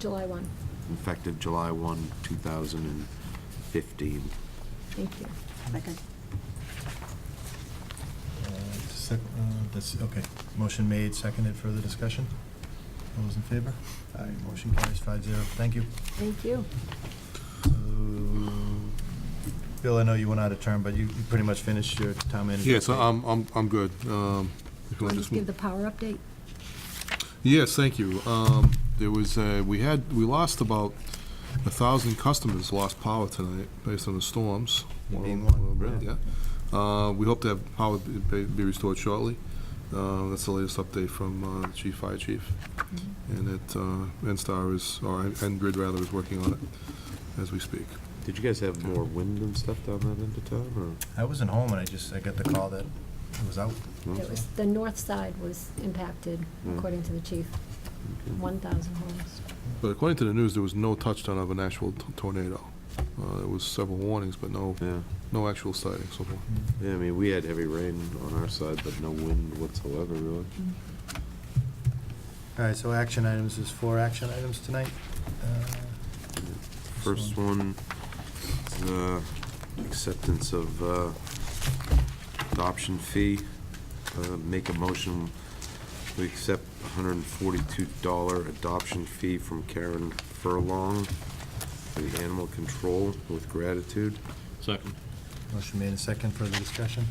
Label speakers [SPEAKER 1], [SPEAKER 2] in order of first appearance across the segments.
[SPEAKER 1] July 1.
[SPEAKER 2] effective July 1, 2015.
[SPEAKER 1] Thank you.
[SPEAKER 3] Second.
[SPEAKER 4] Uh, sec- uh, That's, okay. Motion made, seconded, further discussion? All those in favor? Aye, motion carries five zero. Thank you.
[SPEAKER 1] Thank you.
[SPEAKER 4] So, Bill, I know you went out of term, but you you pretty much finished your town manager.
[SPEAKER 5] Yes, I'm, I'm, I'm good. Um, if
[SPEAKER 1] Want
[SPEAKER 5] you want
[SPEAKER 1] to
[SPEAKER 5] to
[SPEAKER 1] just
[SPEAKER 5] move-
[SPEAKER 1] give the power update?
[SPEAKER 5] Yes, thank you. Um, There was, uh, we had, we lost about a 1,000 customers lost power tonight based on the storms.
[SPEAKER 4] Being
[SPEAKER 5] of them-
[SPEAKER 4] one,
[SPEAKER 5] well,
[SPEAKER 4] yeah.
[SPEAKER 5] yeah. Uh, We hope to have power be- be be restored shortly. Uh, That's the latest update from uh, Chief Fire Chief. And that uh, NSTAR is, or Grid rather, is working on it as we speak.
[SPEAKER 2] Did you guys have more wind and stuff down that end of town,
[SPEAKER 4] I wasn't home, and I just, I got the call that it was out.
[SPEAKER 2] or? no?
[SPEAKER 1] It was, the north side was impacted,
[SPEAKER 2] Mm.
[SPEAKER 1] according to the chief, 1,000 homes.
[SPEAKER 5] But according to the news, there was no touchdown of an actual t- tornado. Uh, There was several warnings, but no,
[SPEAKER 2] Yeah,
[SPEAKER 5] no actual sighting so far.
[SPEAKER 2] yeah, I mean, we had heavy rain on our side, but no wind whatsoever, really.
[SPEAKER 1] Mm.
[SPEAKER 4] All right, so action items, there's four action items tonight. Uh,
[SPEAKER 2] First one, is, uh, acceptance of uh, adoption fee. Uh, Make a motion, we accept $142 adoption fee from Karen Furlong for the animal control with gratitude.
[SPEAKER 6] Second.
[SPEAKER 4] Motion made, and second, further discussion?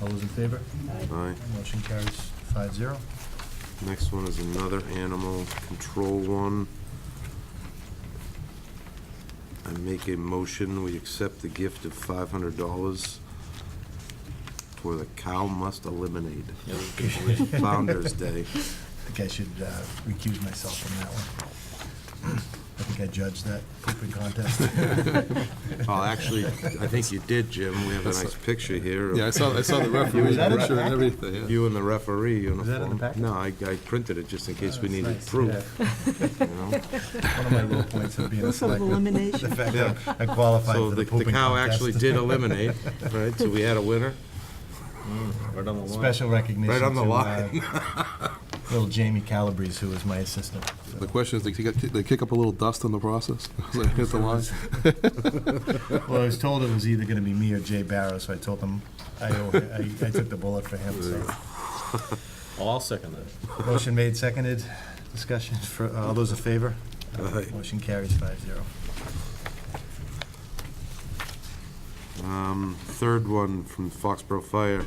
[SPEAKER 4] All those in favor?
[SPEAKER 2] Aye.
[SPEAKER 4] Motion carries five zero.
[SPEAKER 2] Next one is another animal control one. I make a motion, we accept the gift of five hundred dollars for the Cow Must Eliminate Founder's Day.
[SPEAKER 4] I think I should uh, recuse myself from that one. I think I judged that pooping contest.
[SPEAKER 2] Oh, actually, I think you did, Jim. We have a nice picture here. of
[SPEAKER 5] Yeah, I saw, I saw the referee
[SPEAKER 4] Was that in the
[SPEAKER 5] picture and
[SPEAKER 4] packet?
[SPEAKER 5] everything, yeah.
[SPEAKER 2] You and the referee uniform.
[SPEAKER 4] that in the packet?
[SPEAKER 2] No, I, I printed it just in case we
[SPEAKER 4] That's
[SPEAKER 2] needed
[SPEAKER 4] nice,
[SPEAKER 2] proof,
[SPEAKER 4] yeah.
[SPEAKER 2] you know?
[SPEAKER 4] One of my low points of being a
[SPEAKER 3] Sort of
[SPEAKER 4] selectman.
[SPEAKER 3] elimination.
[SPEAKER 4] The fact that I qualified
[SPEAKER 2] So
[SPEAKER 4] for
[SPEAKER 2] the
[SPEAKER 4] the
[SPEAKER 2] the
[SPEAKER 4] pooping contest.
[SPEAKER 2] cow actually did eliminate, right? So we had a winner.
[SPEAKER 6] Mm, Right on the line.
[SPEAKER 4] Special recognition
[SPEAKER 2] Right on the
[SPEAKER 4] to, uh,
[SPEAKER 2] line.
[SPEAKER 4] Little Jamie Calabrese, who was my assistant.
[SPEAKER 5] The question is, they kick, up- they kick up a little dust in the process? Like, hit the line?
[SPEAKER 4] Well, I was told it was either gonna be me or Jay Barrow, so I told him, I, owe- I I took the bullet for him, so.
[SPEAKER 6] I'll second that.
[SPEAKER 4] Motion made, seconded, discussion, for, uh, all those in favor?
[SPEAKER 2] Aye.
[SPEAKER 4] Motion carries five zero.
[SPEAKER 2] Um, Third one from Foxborough Fire.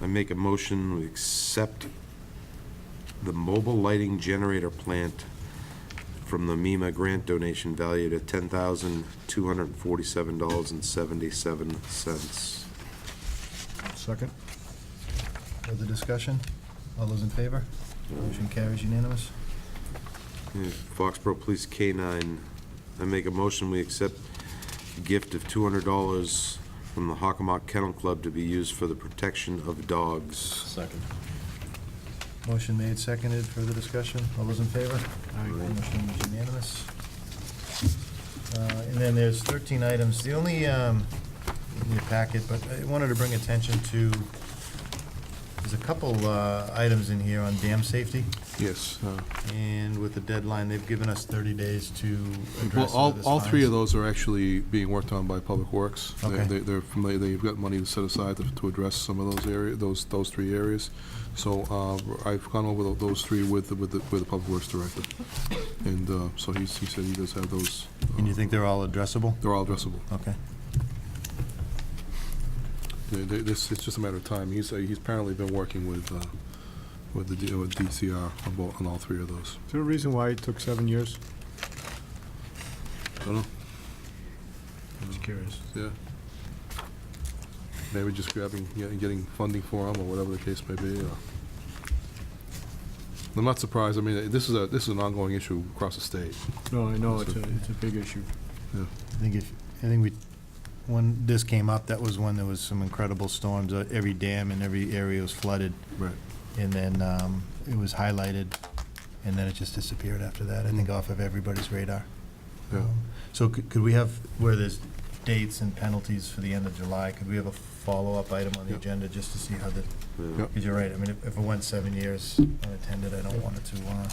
[SPEAKER 2] I make a motion, we accept the mobile lighting generator plant from the MEMA grant donation valued at $10,247.77.
[SPEAKER 4] Second. Further discussion? All those in favor? Motion carries unanimous.
[SPEAKER 2] Yeah, Foxborough Police K-9. I make a motion, we accept a gift of $200 from the Hockomock Kennel Club to be used for the protection of dogs.
[SPEAKER 6] Second.
[SPEAKER 4] Motion made, seconded, further discussion, all those in favor? Aye. Motion is unanimous. Uh, And then there's 13 items, the only, um, in your packet, but I wanted to bring attention to, there's a couple uh, items in here on dam safety,
[SPEAKER 5] Yes. uh,
[SPEAKER 4] and with the deadline, they've given us 30 days to
[SPEAKER 5] Well,
[SPEAKER 4] address
[SPEAKER 5] all,
[SPEAKER 4] this
[SPEAKER 5] all three of
[SPEAKER 4] fines.
[SPEAKER 5] those are actually being worked on by Public Works. They-
[SPEAKER 4] Okay.
[SPEAKER 5] they- They're familiar, they've got money set aside to- to address some of those area, those, those three areas. So uh, I've gone over tho- those three with, the- with the, with the Public Works Director. And uh, so he's, he said he does have those, uh,
[SPEAKER 4] And you think they're all addressable?
[SPEAKER 5] they're all addressable.
[SPEAKER 4] Okay.
[SPEAKER 5] They- they- This, it's just a matter of time. He's, uh, he's apparently been working with, uh, with the D- with DCR on bo- on all three of those.
[SPEAKER 7] Is there a reason why it took seven years?
[SPEAKER 5] Dunno.
[SPEAKER 4] Just curious.
[SPEAKER 5] Yeah. Maybe just grabbing, yeah, getting funding for them, or whatever the case may be, or... I'm not surprised, I mean, this is a, this is an ongoing issue across the state.
[SPEAKER 7] No, I know, it's a, it's a big issue.
[SPEAKER 4] I think if, I think we, when this came up, that was when there was some incredible storms. Uh, Every dam and every area was flooded,
[SPEAKER 5] Right.
[SPEAKER 4] and then um, it was highlighted, and then it just disappeared after that, I think off of everybody's radar. Um,
[SPEAKER 5] Yeah.
[SPEAKER 4] So could could we have, where there's dates and penalties for the end of July, could we have a follow-up item on the
[SPEAKER 5] Yep.
[SPEAKER 4] agenda just to see how the,
[SPEAKER 2] Yeah.
[SPEAKER 5] Yep.
[SPEAKER 4] because you're right, I mean, if if it went seven years unattended, I don't want it to, uh,